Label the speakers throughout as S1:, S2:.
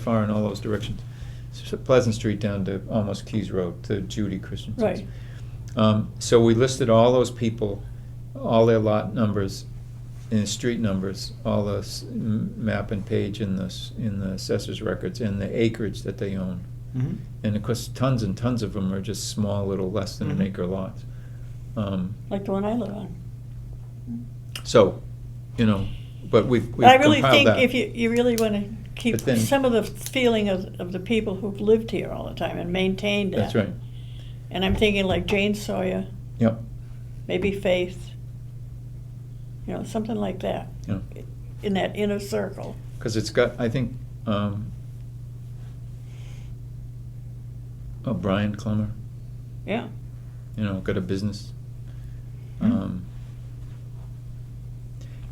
S1: far in all those directions. S- Pleasant Street down to almost Keys Road to Judy Christensen's.
S2: Right.
S1: Um, so we listed all those people, all their lot numbers, and street numbers, all the s- m- map and page in the, s- in the assessor's records, and the acreage that they own.
S3: Mhm.
S1: And of course, tons and tons of them are just small, little less than an
S3: Mhm.
S1: acre lots. Um,
S2: like the one I live on.
S1: so, you know, but we've, we've
S2: But I really
S1: compiled
S2: think
S1: that.
S2: if you, you really want to keep
S1: But then-
S2: some of the feeling of, of the people who've lived here all the time and maintained that.
S1: That's right.
S2: And I'm thinking like Jane Sawyer,
S1: Yep.
S2: maybe Faith, you know, something like that.
S1: Yeah.
S2: In that inner circle.
S1: Because it's got, I think, um, oh, Brian Clemmer,
S2: Yeah.
S1: you know, got a business.
S3: Hmm.
S1: Um,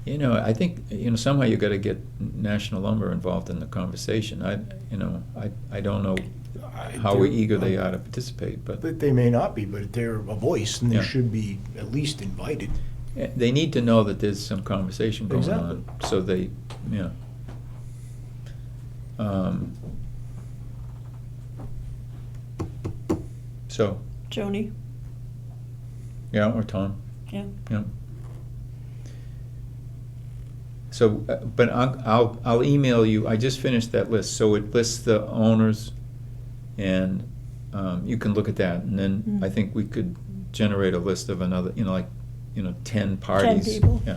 S1: you know, I think, you know, somehow you got to get National Lumber involved in the conversation. I, you know, I, I don't know
S3: I-
S1: how
S3: Mm-hmm. they're-
S1: eager they are to participate, but
S3: But they may not be, but they're a voice and
S1: Yeah.
S3: they should be at least invited.
S1: eh, they need to know that there's some conversation going on,
S3: Exactly.
S1: so they, yeah. Um, so,
S2: Joni,
S1: Yeah, or Tom,
S2: yeah.
S1: yeah. So, uh, but I'll, I'll, I'll email you, I just finished that list, so it lists the owners, and, um, you can look at that, and then I
S2: Mm.
S1: think we could generate a list of another, you know, like, you know, ten parties.
S2: people.
S1: Yeah.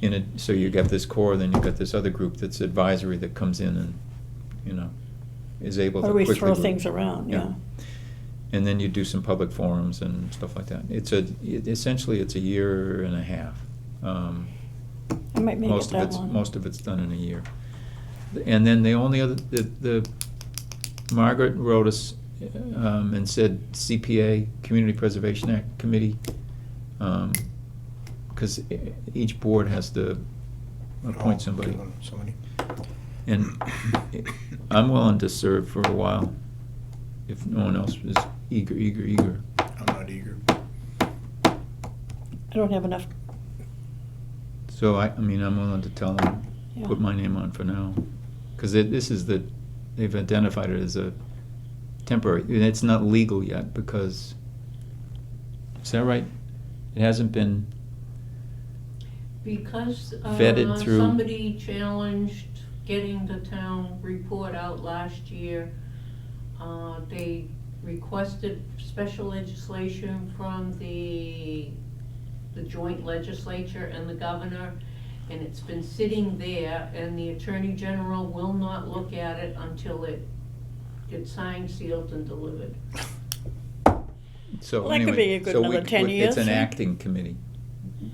S1: In it, so you got this core, then you've got this other group that's advisory that comes in and, you know, is able to
S2: Or
S1: quickly.
S2: we throw
S1: move.
S2: things around,
S1: Yeah.
S2: yeah.
S1: And then you do some public forums and stuff like that. It's a, it- essentially, it's a year and a half. Um,
S2: I might make it
S1: Most of
S2: that
S1: it's,
S2: long.
S1: most of it's done in a year. And then the only other, the, the, Margaret wrote us, um, and said CPA, Community Preservation Act Committee. um, Cause e- each board has to
S3: Oh,
S1: appoint somebody.
S3: Somebody.
S1: And I'm willing to serve for a while, if no one else is eager, eager, eager.
S3: I'm not eager.
S2: I don't have enough,
S1: So I, I mean, I'm willing to tell them,
S2: yeah.
S1: put my name on for now. Because this is the, they've identified it as a temporary, and it's not legal yet because, is that right? It hasn't been,
S4: Because
S1: Vetted
S4: uh,
S1: through-
S4: somebody challenged getting the town report out last year, uh, they requested special legislation from the, the joint legislature and the governor, and it's been sitting there, and the attorney general will not look at it until it gets signed, sealed, and delivered.
S1: so
S2: Well, that could be a
S1: anyway,
S2: good
S1: so we,
S2: another 10
S1: we- it's
S2: years,
S1: an
S2: eh?
S1: acting committee,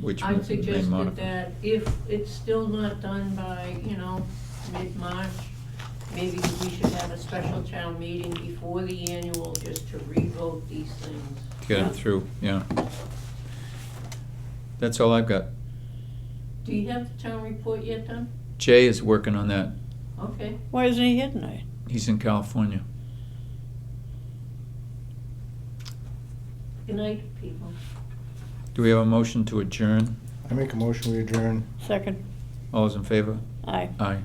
S1: which we
S4: I
S1: may
S4: suggested
S1: modify.
S4: that if it's still not done by, you know, mid-March, maybe we should have a special town meeting before the annual just to revote these things.
S1: Get it through, yeah. That's all I've got.
S4: Do you have the town report yet done?
S1: Jay is working on that.
S4: Okay,
S2: Why isn't he here tonight?
S1: He's in California.
S4: good night, people.
S1: Do we have a motion to adjourn?
S3: I make a motion, we adjourn.
S2: Second,
S1: All those in favor?
S2: aye.
S1: Aye.